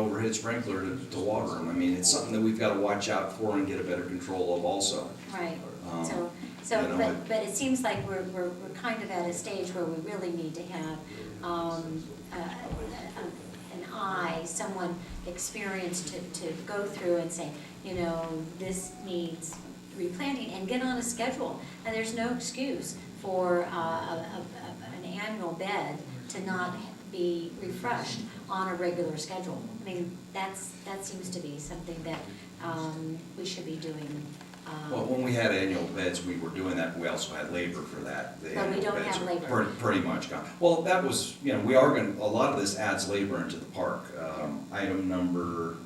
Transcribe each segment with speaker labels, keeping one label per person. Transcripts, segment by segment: Speaker 1: overhead sprinkler to, to water them. I mean, it's something that we've gotta watch out for and get a better control of also.
Speaker 2: Right,
Speaker 1: Um,
Speaker 2: so, so,
Speaker 1: you know,
Speaker 2: but,
Speaker 1: it-
Speaker 2: but it seems like we're, we're, we're kind of at a stage where we really need to have, um, a- a- an eye, someone experienced to, to go through and say, you know, this needs replanting and get on a schedule. And there's no excuse for, uh, a, a, a- an annual bed to not be refreshed on a regular schedule. I mean, that's, that seems to be something that, um, we should be doing, um,
Speaker 1: Well, when we had annual beds, we were doing that, we also had labor for that. The
Speaker 2: But we
Speaker 1: annual
Speaker 2: don't
Speaker 1: beds
Speaker 2: have
Speaker 1: are
Speaker 2: labor.
Speaker 1: pretty- Pretty much gone. Well, that was, you know, we are gonna, a lot of this adds labor into the park. Um, Item number,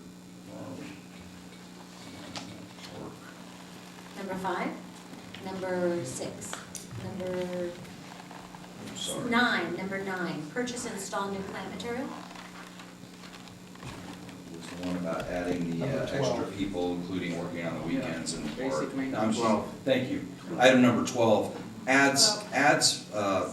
Speaker 1: um,
Speaker 2: Number five, number six, number
Speaker 1: I'm sorry.
Speaker 2: nine, number nine, purchase and install new plant material.
Speaker 1: was the one about adding the uh,
Speaker 3: Number
Speaker 1: extra
Speaker 3: 12.
Speaker 1: people, including working on the
Speaker 3: Yeah,
Speaker 1: weekends and.
Speaker 3: basic
Speaker 1: or-
Speaker 3: maintenance.
Speaker 1: I'm sorry, thank you. Item number twelve, adds, adds, uh,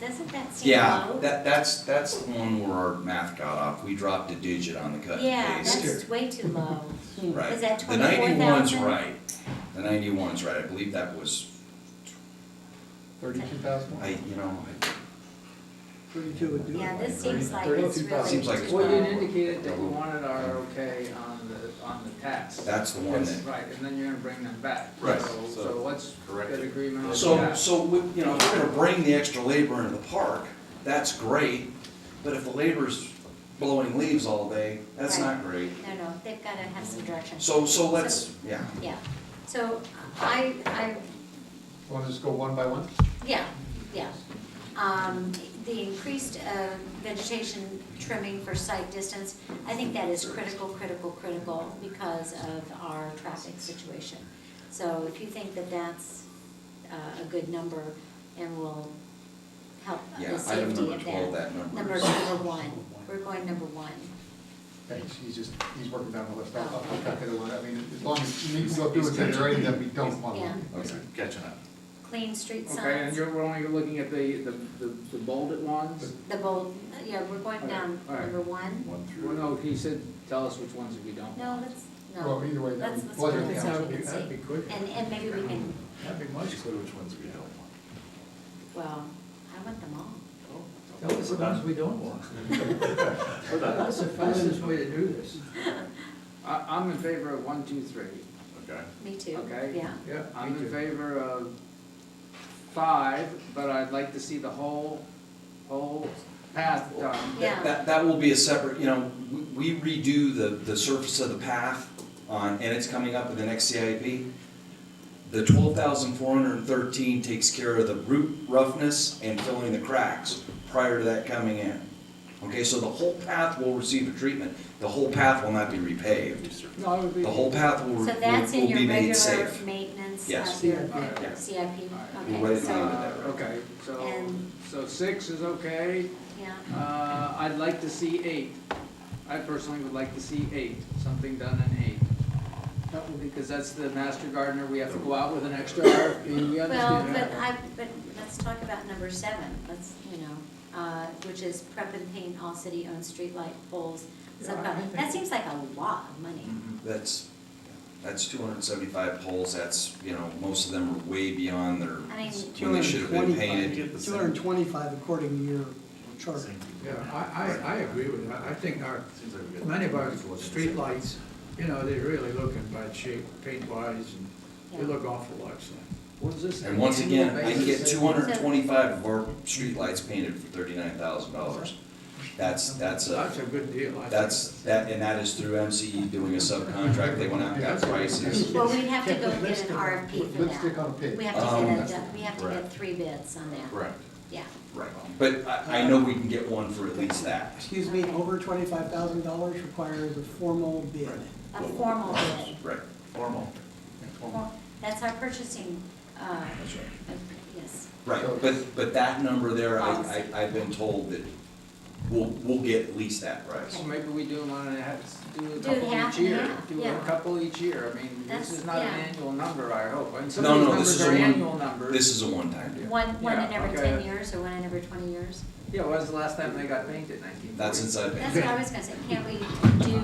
Speaker 2: Doesn't that seem
Speaker 1: yeah,
Speaker 2: low?
Speaker 1: that, that's, that's the one where our math got off. We dropped a digit on the cut
Speaker 2: Yeah,
Speaker 1: and paste.
Speaker 2: that's way too low.
Speaker 1: Right.
Speaker 2: Is that
Speaker 1: The
Speaker 2: 24,000?
Speaker 1: ninety-one's right. The ninety-one's right. I believe that was,
Speaker 3: Thirty-two thousand?
Speaker 1: I, you know,
Speaker 4: Thirty-two would do it.
Speaker 2: Yeah, this seems like it's
Speaker 3: Thirty-two thousand.
Speaker 2: really.
Speaker 1: Seems like it's
Speaker 3: Well, you
Speaker 1: bad.
Speaker 3: indicated that you wanted our okay on the, on the tax.
Speaker 1: that's the one
Speaker 3: That's
Speaker 1: that.
Speaker 3: Right, and then you're gonna bring them back.
Speaker 1: Right.
Speaker 3: So- So what's
Speaker 5: Correct.
Speaker 3: good agreement on that?
Speaker 1: So, so, we- you know, if we're gonna bring the extra labor into the park, that's great, but if the labor's blowing leaves all day, that's not great.
Speaker 2: No, no, they've gotta have some direction.
Speaker 1: So, so let's, yeah,
Speaker 2: Yeah, so I, I
Speaker 3: Wanna just go one by one?
Speaker 2: Yeah, yeah. Um, the increased, uh, vegetation trimming for sight distance, I think that is critical, critical, critical because of our traffic situation. So if you think that that's, uh, a good number and will help
Speaker 1: Yeah,
Speaker 2: the
Speaker 1: item
Speaker 2: safety
Speaker 1: number
Speaker 2: of
Speaker 1: 12,
Speaker 2: that.
Speaker 1: that number
Speaker 2: Number,
Speaker 1: is-
Speaker 2: number one, we're going number one.
Speaker 6: Thanks, he's just, he's working down the list, I'll,
Speaker 2: Oh,
Speaker 6: I'll
Speaker 2: okay.
Speaker 6: cut that one, I mean, as long as you go through it, there's already that we don't want.
Speaker 2: Yeah,
Speaker 1: okay.
Speaker 5: Catching up.
Speaker 2: clean street
Speaker 3: Okay, and
Speaker 2: signs,
Speaker 3: you're, we're only looking at the, the, the- the bolded ones?
Speaker 2: the bold, yeah, we're going
Speaker 3: Okay,
Speaker 2: down
Speaker 3: all right.
Speaker 2: number one.
Speaker 5: One
Speaker 3: Well,
Speaker 5: through.
Speaker 3: no, he said, tell us which ones we don't
Speaker 2: No,
Speaker 3: want.
Speaker 2: that's, no.
Speaker 6: Well, either way, that
Speaker 2: That's,
Speaker 6: would.
Speaker 2: that's one
Speaker 6: wasn't-
Speaker 2: that's
Speaker 6: yeah.
Speaker 2: what we can see.
Speaker 5: quick.
Speaker 2: And, and maybe we can,
Speaker 5: That'd be much clearer which ones we don't want.
Speaker 2: well, I want them all.
Speaker 4: Tell us the ones we don't want. That's the fastest way to do this.
Speaker 3: I, I'm in favor of one, two, three.
Speaker 5: Okay.
Speaker 2: Me too.
Speaker 3: Okay.
Speaker 2: Yeah.
Speaker 4: Yeah.
Speaker 3: I'm in favor of five, but I'd like to see the whole, whole path done.
Speaker 2: Yeah.
Speaker 1: That, that will be a separate, you know, we we redo the, the surface of the path on, and it's coming up in the next CIP. The twelve thousand four hundred and thirteen takes care of the root roughness and filling the cracks prior to that coming in. Okay, so the whole path will receive a treatment, the whole path will not be repaved,
Speaker 3: No, it would be.
Speaker 1: the whole path will, will
Speaker 2: So
Speaker 1: will
Speaker 2: that's in your
Speaker 1: be made
Speaker 2: regular
Speaker 1: safe.
Speaker 2: maintenance
Speaker 1: Yes.
Speaker 2: of your
Speaker 3: Alright.
Speaker 2: your CIP.
Speaker 3: Alright.
Speaker 1: We'll
Speaker 2: Okay,
Speaker 1: wait on
Speaker 2: so,
Speaker 1: it.
Speaker 3: Uh, Okay, so,
Speaker 2: And-
Speaker 3: so six is okay.
Speaker 2: yeah,
Speaker 3: Uh, I'd like to see eight. I personally would like to see eight, something done in eight. Because that's the master gardener, we have to go out with an extra RFP, we
Speaker 2: well,
Speaker 3: understand
Speaker 2: but
Speaker 3: that.
Speaker 2: I, but let's talk about number seven, let's, you know, uh, which is prep and paint all city-owned streetlight poles.
Speaker 4: Yeah,
Speaker 2: So,
Speaker 4: I
Speaker 2: but
Speaker 4: think-
Speaker 2: That seems like a lot of money.
Speaker 5: Mm.
Speaker 1: That's, that's two hundred and seventy-five poles, that's, you know, most of them are way beyond their,
Speaker 2: I mean-
Speaker 1: when they should have been painted.
Speaker 4: Two hundred and twenty-five according to your chart.
Speaker 7: Yeah, I, I, I agree with that. I think our, many of our streetlights, you know, they really look in bad shape, paint-wise, and they
Speaker 2: Yeah.
Speaker 7: look awful like
Speaker 3: What is this?
Speaker 1: And once again, I can get
Speaker 3: Basis?
Speaker 1: two hundred and twenty-five of our streetlights painted for thirty-nine thousand dollars. That's, that's a,
Speaker 7: That's a good deal, I think.
Speaker 1: that's, that, and that is through MCE doing a subcontract, they went out and got prices.
Speaker 2: Well, we have to
Speaker 6: Yeah,
Speaker 2: go
Speaker 6: put
Speaker 2: get an
Speaker 6: lipstick on-
Speaker 2: RFP
Speaker 6: put
Speaker 2: for
Speaker 6: Lipstick
Speaker 2: that.
Speaker 6: on a pig.
Speaker 2: We have to
Speaker 1: Um,
Speaker 2: get a, done- we have to get
Speaker 5: Correct.
Speaker 2: three bids on that,
Speaker 5: Correct.
Speaker 2: yeah.
Speaker 1: Right, but I, I know we can get one for at least that.
Speaker 4: Excuse me, over twenty-five thousand dollars requires a formal bid.
Speaker 2: A formal bid.
Speaker 1: Right,
Speaker 5: Formal.
Speaker 2: Well, That's our purchasing, uh,
Speaker 1: that's right.
Speaker 2: uh, yes.
Speaker 1: Right, but, but that number there, I, I, I've been told that we'll, we'll get at least that price.
Speaker 3: So maybe we do one and a half, do a
Speaker 2: Do it
Speaker 3: couple
Speaker 2: half
Speaker 3: each
Speaker 2: and
Speaker 3: year.
Speaker 2: half,
Speaker 3: Do
Speaker 2: yeah.
Speaker 3: a couple each year. I mean,
Speaker 2: That's-
Speaker 3: this is not an
Speaker 2: yeah.
Speaker 3: annual number, I hope. And some
Speaker 1: No,
Speaker 3: of these
Speaker 1: no, this
Speaker 3: numbers
Speaker 1: is
Speaker 3: are
Speaker 1: a one-
Speaker 3: annual numbers.
Speaker 1: This is a one-time deal.
Speaker 2: One, one in
Speaker 3: Yeah,
Speaker 2: every
Speaker 3: okay.
Speaker 2: ten years or one in every twenty years?
Speaker 3: Yeah, when was the last time they got painted? Nineteen forty?
Speaker 1: That's inside.
Speaker 2: That's what I was gonna say, can't we do